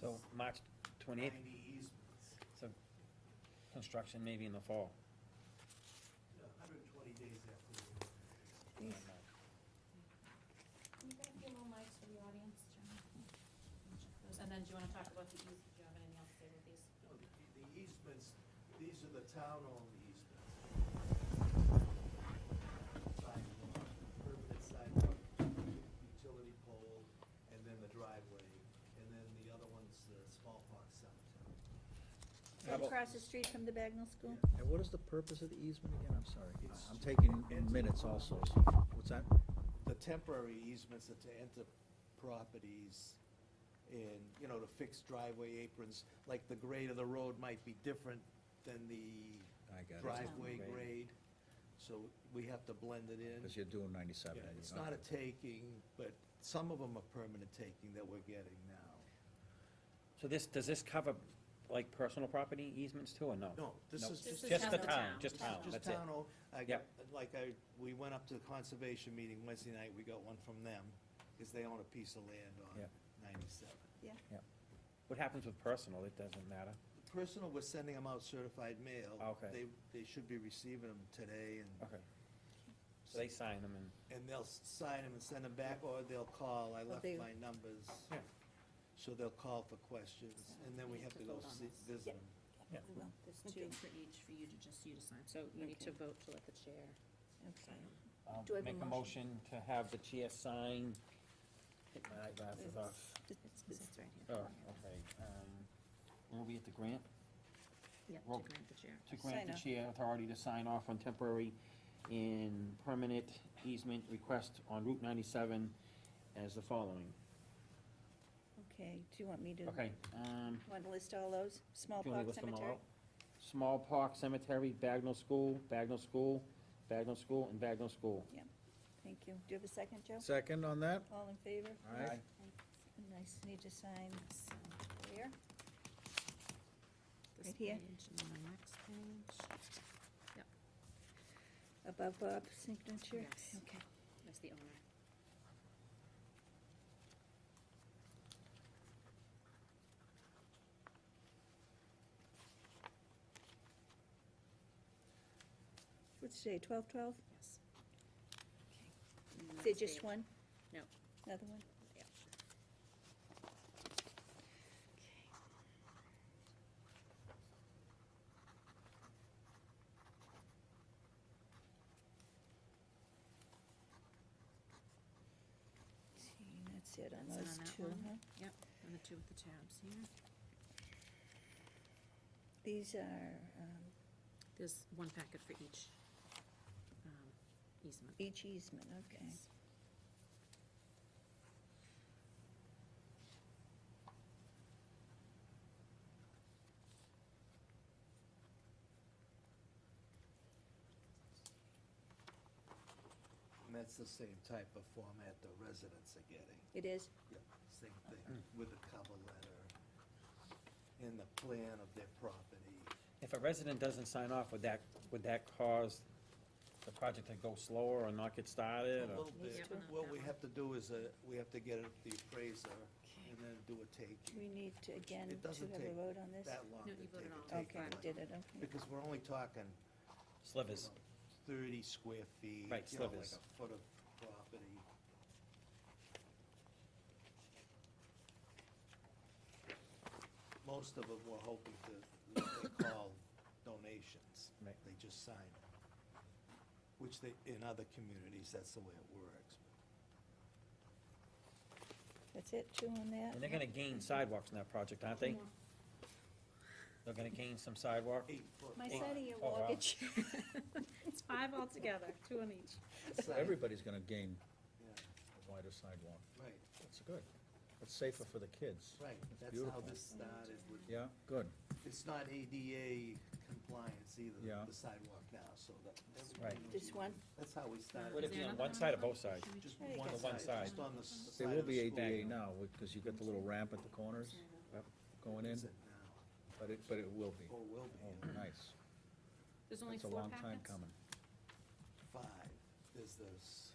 So March twenty-eighth, Ninety easements, so construction maybe in the fall. you know, hundred and twenty days after. the award. I don't know. Can you back your little mics to the audience, John? And then do you wanna talk about the eas, do you have anything else to say about these? No, the the easements, these are the town-owned easements. Sidewalk, permanent sidewalk, utility pole, and then the driveway, and then the other one's the small box cemetery. How about- Across the street from the Bagnell School? And what is the purpose of the easement again? I'm sorry. It's- I'm taking minutes also. so- What's that? The temporary easements are to enter properties and, you know, to fix driveway aprons, like the grade of the road might be different than the I got it. driveway Grade. grade, so we have to blend it in. Because you're doing ninety-seven. Yeah, and It's you're not a taking, but some of them are permanent taking that we're getting now. So this, does this cover like personal property easements too, or no? No, this Nope. is This just. is Just the town. town, just Town. town, Just Just that's it. town, oh, I got, Yep. like I, we went up to the conservation meeting Wednesday night, we got one from them, because they own a piece of land on Yep. ninety-seven. What happens with personal, it doesn't matter. Personal, we're sending them out certified mail. Okay. They, they should be receiving them today, and, Okay. So they sign them and, and they'll sign them and send them back, or they'll call, I left they- my numbers. Yeah. So they'll call for questions, and then we have to go Vote on see, this. visit them. Yeah. We will. There's Oh, two for each, for you to, just you to sign, so you need to vote to let the chair. Okay. I'll Do I have a make a motion to have the chair sign. Hit my eyeglasses off. It's- it's right here. Oh, okay. um, Where are we at the grant? Yep, Roll- grant the chair. to grant the Sign off. chair authority to sign off on temporary and permanent easement request on Route ninety-seven as the following. Okay, do you want me to, Okay, um, want to list all those? Small do you want me to Park list them all Cemetery? out? Small Park Cemetery, Bagnell School, Bagnell School, Bagnell School, and Bagnell School. Thank you. Do you have a second, Joe? not- Second on that? All in favor? All right. And I s- need to sign where? This Right here. page and then the next page. Above Bob's signature? Yes. Okay. That's the owner. What's today, twelve twelve? Yes. Is it just one? No. Another one? Yeah. Okay. See, that's it on That's it those on that two, one. huh? And the two with the tabs here. These are, um, There's one packet for each um, easement. each easement, okay. Yes. And that's the same type of format the residents are getting. It is? Same thing Hmm. with the cover letter and the plan of their property. If a resident doesn't sign off, would that, would that cause the project to go slower or not get A started? or- little Needs bit, to- Yeah. what we have to do is, uh, we have to get the appraiser and then do a take. We need to, again, It to doesn't have a take vote on this? That long No, to you take voted on a that. take. Okay, we did it, okay. Because we're only talking, you Slivers. know, thirty square feet. Right, you know, like slivers. a foot of property. Most of them were hoping to, they call donations. Right. They just sign it. Which they, in other communities, that's the way it works. That's it, two on that? And they're gonna gain sidewalks in that project, aren't they? They're gonna gain some sidewalk? Eight foot. My wide. side of your Oh, wow. mortgage. It's five altogether, two on each. So Everybody's gonna gain Yeah, a wider sidewalk. Right, That's good. That's safer for the kids. right. That's how beautiful. this started with Yeah, good. It's not ADA compliance either, Yeah. the sidewalk now, so that. Right. Just one? That's how we started. Would it Is be there on another one side or both sides? Just There you one go. The one side, just side. on the s- They side will of the be school. ADA now, because you've got the little ramp at the corners going in, Is it now? but it, but it will be. Or will be, Oh, nice. There's only It's a four long time packets? coming. five, there's the s-